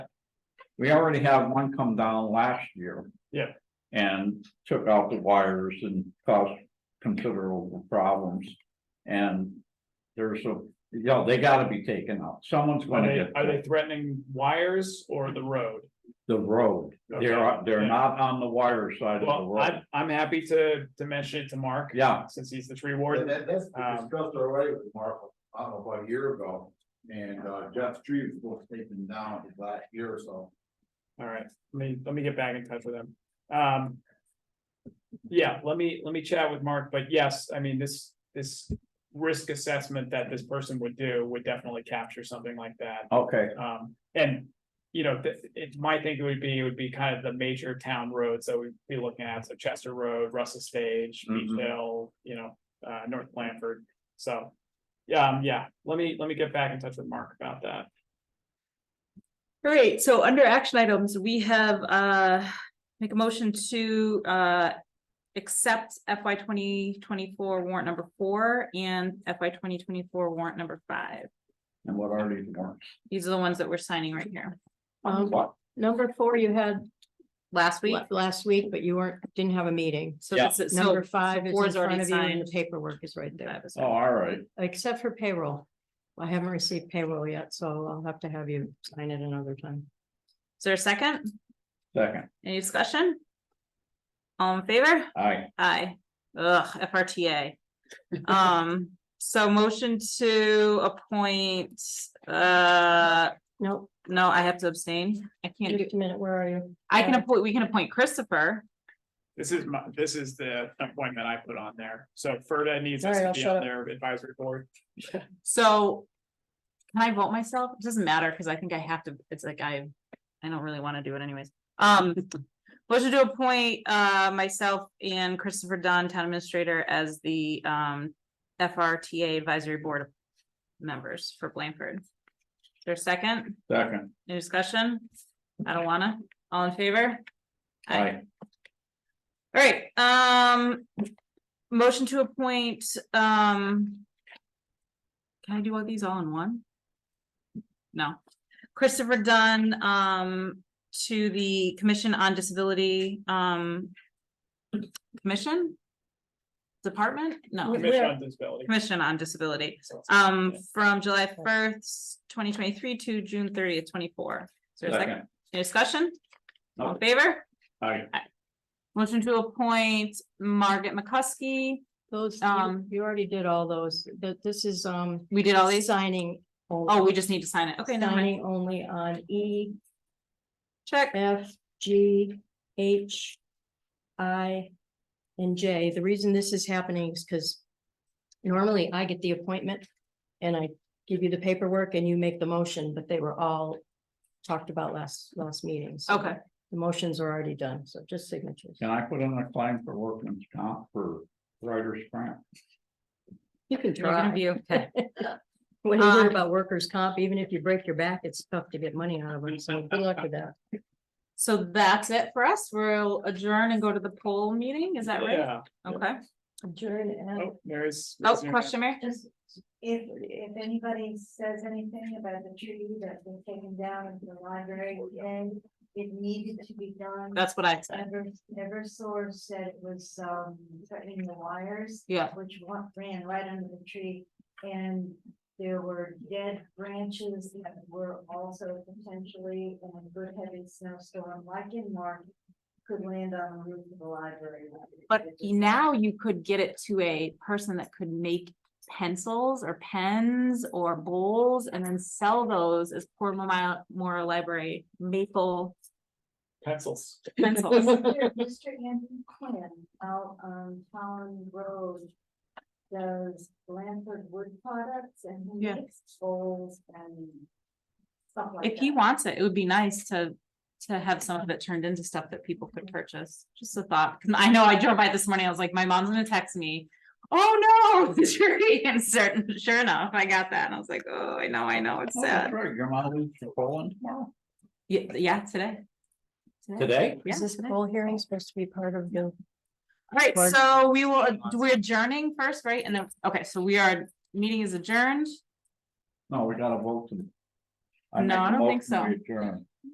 we already had one come down last year. Yeah. And took out the wires and caused considerable problems. And there's a, you know, they gotta be taken out. Someone's Are gonna they, get are they threatening wires or the road? the road. They're, Okay, they're yeah. not on the wire side of the Well, road. I'm, I'm happy to, to mention it to Mark. Yeah, Since he's the tree And warden. that, that's been Um, discussed already with Mark, I don't know, about a year ago, and, uh, Jeff Tree was supposed to take them down his last year or so. All right, let me, let me get back in touch with him. Um. Yeah, let me, let me chat with Mark, but yes, I mean, this, this risk assessment that this person would do would definitely capture something like that. okay, Um, and, you know, th- it, my thinking would be, it would be kind of the major town roads that we'd be looking at, so Chester Road, Russell Stage, Beach Mhm. Hill, you know, uh, North Blanford, so. Yeah, um, yeah, let me, let me get back in touch with Mark about that. All right, so under action items, we have uh make a motion to uh. Accept FY twenty twenty-four warrant number four and FY twenty twenty-four warrant number five. and what are these warrants? These are the ones that we're signing right here. Um, Oh, number four, you had Last week, la- last week, but you weren't, didn't have a meeting. so Yeah. this is. so Number five is four in front already of you and signed. the paperwork is right there, Five is- Oh, all right. except for payroll. I haven't received payroll yet, so I'll have to have you sign it another time. Is there a second? Second, Any discussion? All in favor? aye. Aye. Ugh, FRTA. Um, so motion to appoint uh No, No, I have to abstain. I can't do, just a minute, where are you? I can Yeah. appoint, we can appoint Christopher. This is my, this is the appointment I put on there, so Ferda needs us All right, to I'll be shut on up. their advisory board. So can I vote myself? It doesn't matter because I think I have to, it's like I, I don't really want to do it anyways. Um, motion to appoint uh myself and Christopher Dunn, town administrator, as the um FRTA advisory board members for Blanford. Their second, Second, any discussion? I don't wanna. All in favor? aye. All right, um, motion to appoint, um. Can I do all these all in one? No, Christopher Dunn, um, to the Commission on Disability, um. Commission? Department? No, Wait. Commission on Disability. Commission on Disability, So it's- um, from July first, twenty twenty-three to June thirtieth, twenty-four. Is there a second? Second, Any discussion? All in favor? aye. Motion to appoint Margaret McCusky. Those, you Um, you already did all those. Th- This is, um, We did all these. signing. Oh, we just need to sign it. Okay, never mind. Signing only on E, Check. F, G, H, I, and J. The reason this is happening is because normally I get the appointment and I give you the paperwork and you make the motion, but they were all talked about last, last meeting. so Okay. The motions are already done, so just signatures. Can I put in a claim for workman's comp for writer's grant? You can You're gonna try. be okay. When you hear Um, about workers' comp, even if you break your back, it's tough to get money out of it. So good luck with that. So that's it for us. We'll adjourn and go to the poll meeting. Is that right? Yeah. Okay. Adjourn and. Oh, there is. Oh, there's your- question, Mary? Just if, if anybody says anything about the tree that's been taken down in the library, and it needed to be done. That's what I said. Ever, Eversource said it was, um, threatening the wires, Yeah. which wa- ran right under the tree. And there were dead branches that were also potentially in a good heavy snowstorm, like in March, could land on the roof of the library. But It just- now you could get it to a person that could make pencils or pens or bowls and then sell those as Portland Memorial Library maple Pencils. pencils. Mr. Andrew Quinn out on Town Road does Blanford Wood Products and he Yeah. makes bowls and stuff like that. If he wants it, it would be nice to, to have some of it turned into stuff that people could purchase, just a thought, 'Cause I know I drove by this morning, I was like, my mom's gonna text me. Oh, no, the tree, and certain, sure enough, I got that, and I was like, oh, I know, I know, it's Oh, that's sad, Right, your mom leaves for Poland tomorrow? yeah, yeah, today. Today? Yeah, Is this today. whole hearing supposed to be part of the? Alright, Board. so we will, we're adjourning first, right, and then, okay, so we are, meeting is adjourned, No, we gotta vote to. No, make a I don't think motion, we so. adjourn.